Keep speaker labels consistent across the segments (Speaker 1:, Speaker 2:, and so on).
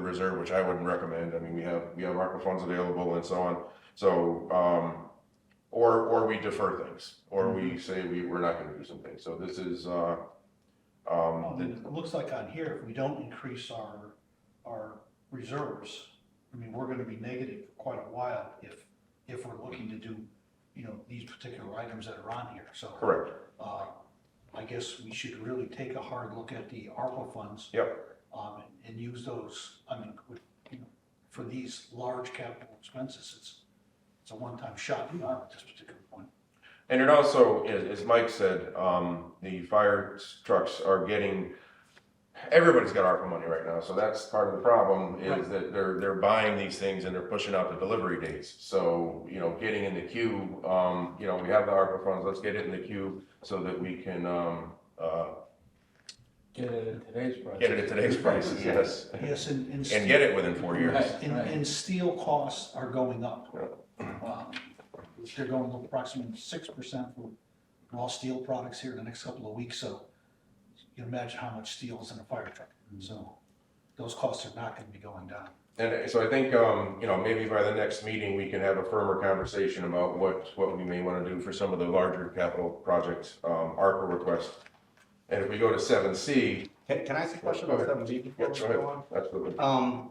Speaker 1: reserve, which I wouldn't recommend. I mean, we have, we have ARPA funds available and so on. So, um, or, or we defer things, or we say we, we're not gonna do something. So this is, uh,
Speaker 2: Well,
Speaker 1: um,
Speaker 2: Oh, then It looks like on here, if we don't increase our, our reserves, I mean, we're gonna be negative for quite a while if, if we're looking to do, you know, these particular items that are on here, so.
Speaker 1: correct.
Speaker 2: uh, I guess we should really take a hard look at the ARPA funds.
Speaker 1: Yep.
Speaker 2: Um, and- and use those, I mean, with, you know, for these large capital expenses, it's, it's a one-time shot in the arm at this particular point.
Speaker 1: And it also, as, as Mike said, um, the fire trucks are getting, everybody's got ARPA money right now, so that's part of the problem, is
Speaker 2: Right.
Speaker 1: that they're, they're buying these things and they're pushing out the delivery dates. So, you know, getting in the queue, um, you know, we have the ARPA funds, let's get it in the queue so that we can, um, uh,
Speaker 3: Get it at today's price.
Speaker 1: get it at today's prices, yes.
Speaker 2: Yes, and, and.
Speaker 1: And get it within four years.
Speaker 3: Right,
Speaker 2: And,
Speaker 3: right.
Speaker 2: and steel costs are going up. Um, They're going up approximately six percent for raw steel products here in the next couple of weeks, so you can imagine how much steel is in a fire truck. So those costs are not gonna be going down.
Speaker 1: And so I think, um, you know, maybe by the next meeting, we can have a firmer conversation about what, what we may want to do for some of the larger capital projects, um, ARPA requests. And if we go to seven C,
Speaker 4: Can, can I ask a question about seven B before
Speaker 1: yeah,
Speaker 4: we
Speaker 1: go
Speaker 4: go
Speaker 1: ahead,
Speaker 4: on?
Speaker 1: absolutely.
Speaker 4: Um,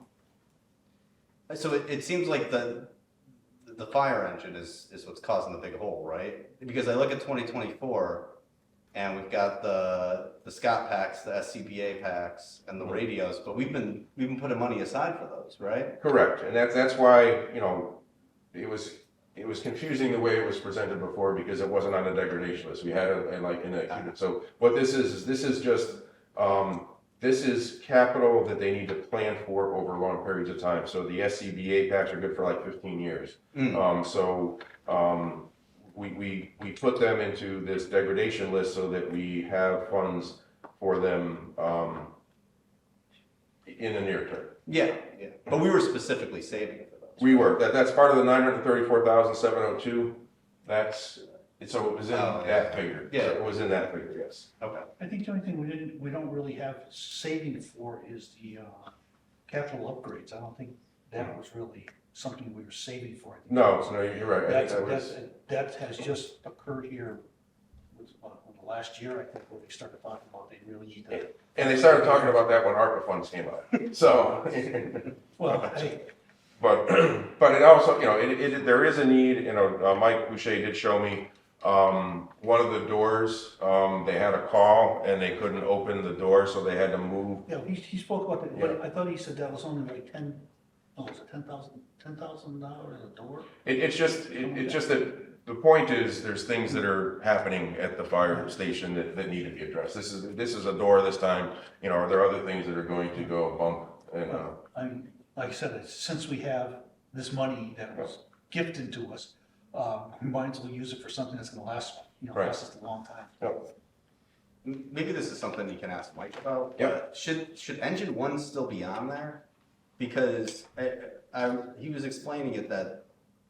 Speaker 4: so it, it seems like the, the fire engine is, is what's causing the big hole, right? Because I look at twenty twenty-four and we've got the, the Scott packs, the SCBA packs and
Speaker 1: Mm-hmm.
Speaker 4: the radios, but we've been, we've been putting money aside for those, right?
Speaker 1: Correct, and that's, that's why, you know, it was, it was confusing the way it was presented before because it wasn't on a degradation list. We had a, a, like, in a, so what this is, is this is just, um, this is capital that they need to plan for over long periods of time. So the E SCBA packs are good for like fifteen years.
Speaker 4: Mm.
Speaker 1: Um, so, um, we, we, we put them into this degradation list so that we have funds for them, um, in the near term.
Speaker 4: Yeah, yeah, but we were specifically saving it for those.
Speaker 1: We were, that, that's part of the nine hundred thirty-four thousand seven oh two, that's, so it was in
Speaker 4: Oh, yeah.
Speaker 1: that figure.
Speaker 4: Yeah.
Speaker 1: It was in that figure, yes.
Speaker 4: Okay,
Speaker 2: I think the only thing we didn't, we don't really have saving for is the, uh, capital upgrades. I don't think that was really something we were saving for. I think
Speaker 1: No, no, you're right, I think
Speaker 2: That's,
Speaker 1: that was,
Speaker 2: that's, that has just occurred here with, with the last year, I think, where they started talking about they really need to.
Speaker 1: and they started talking about that when ARPA funds came out, so.
Speaker 2: Well, hey,
Speaker 1: But, but it also, you know, it, it, there is a need, you know, uh, Mike Boucher did show me, um, one of the doors, um, they had a call and they couldn't open the door, so they had to move.
Speaker 2: you know, he, he spoke about that, but I thought he said that was only like ten, oh, was it ten thousand, ten thousand dollars a door?
Speaker 1: It, it's just, it, it's just that, the point is, there's things that are happening at the fire station that, that need to be addressed. This is, this is a door this time, you know, are there other things that are going to go bump and, uh,
Speaker 2: I mean, like I said, it's- since we have this money that was gifted to us, uh, we might as well use it for something that's gonna last, you know,
Speaker 1: Right.
Speaker 2: last us a long time.
Speaker 4: M- maybe this is something you can ask Mike about.
Speaker 1: Yeah.
Speaker 4: but Should, should engine one still be on there? Because I, I, he was explaining it that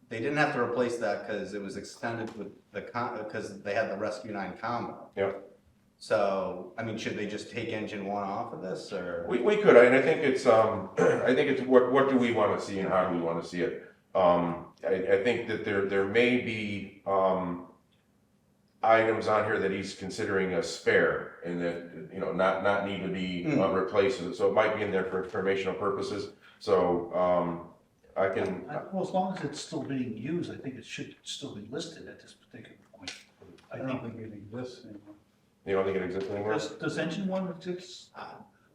Speaker 4: they didn't have to replace that because it was extended with the con, because they had the Rescue Nine combo.
Speaker 1: Yeah.
Speaker 4: So, I mean, should they just take engine one off of this or?
Speaker 1: We, we could, and I think it's, um, I think it's what, what do we want to see and how do we want to see it? Um, I, I think that there, there may be, um, items on here that he's considering a spare and that, you know, not, not need to be
Speaker 2: Hmm.
Speaker 1: uh, replaced. So it might be in there for informational purposes. So, um, I can,
Speaker 2: I- Well, as long as it's still being used, I think it should still be listed at this particular point.
Speaker 3: I
Speaker 2: I
Speaker 3: don't
Speaker 2: think,
Speaker 3: think it exists anymore.
Speaker 1: you don't think it exists anywhere?
Speaker 2: does, does engine one exist?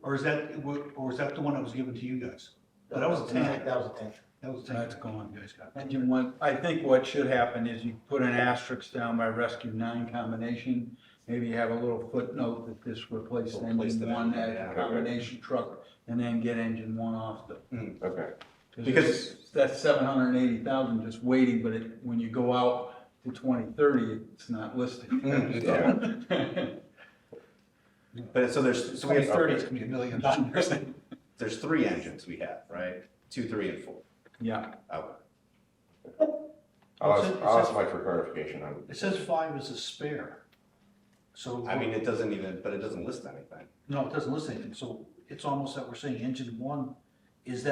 Speaker 2: Or is that, or is that the one that was given to you guys? But that was a tank.
Speaker 5: That was a tank.
Speaker 2: That was the thing that's going, you guys got.
Speaker 3: Engine one, I think what should happen is you put an asterisk down by rescue nine combination. Maybe you have a little footnote that this replaced
Speaker 4: Replace
Speaker 3: engine
Speaker 4: the-
Speaker 3: one,
Speaker 4: yeah.
Speaker 3: that combination truck, and then get engine one off the.
Speaker 1: Okay,
Speaker 4: Because-
Speaker 3: it's- That's seven hundred and eighty thousand just waiting, but it, when you go out to twenty thirty, it's not listed.
Speaker 4: Mm,
Speaker 3: So-
Speaker 4: But so there's, so we have,
Speaker 2: thirty, it's gonna be a million dollars.
Speaker 4: there's three engines we have, right? Two, three and four.
Speaker 3: Yeah,
Speaker 4: Okay.
Speaker 1: I'll
Speaker 2: It's
Speaker 1: ask,
Speaker 2: a- it's
Speaker 1: I'll
Speaker 2: a-
Speaker 1: ask Mike for clarification on
Speaker 2: It says five is a spare. So.
Speaker 4: I mean, it doesn't even, but it doesn't list anything.
Speaker 2: No, it doesn't list anything, so it's almost that we're saying engine one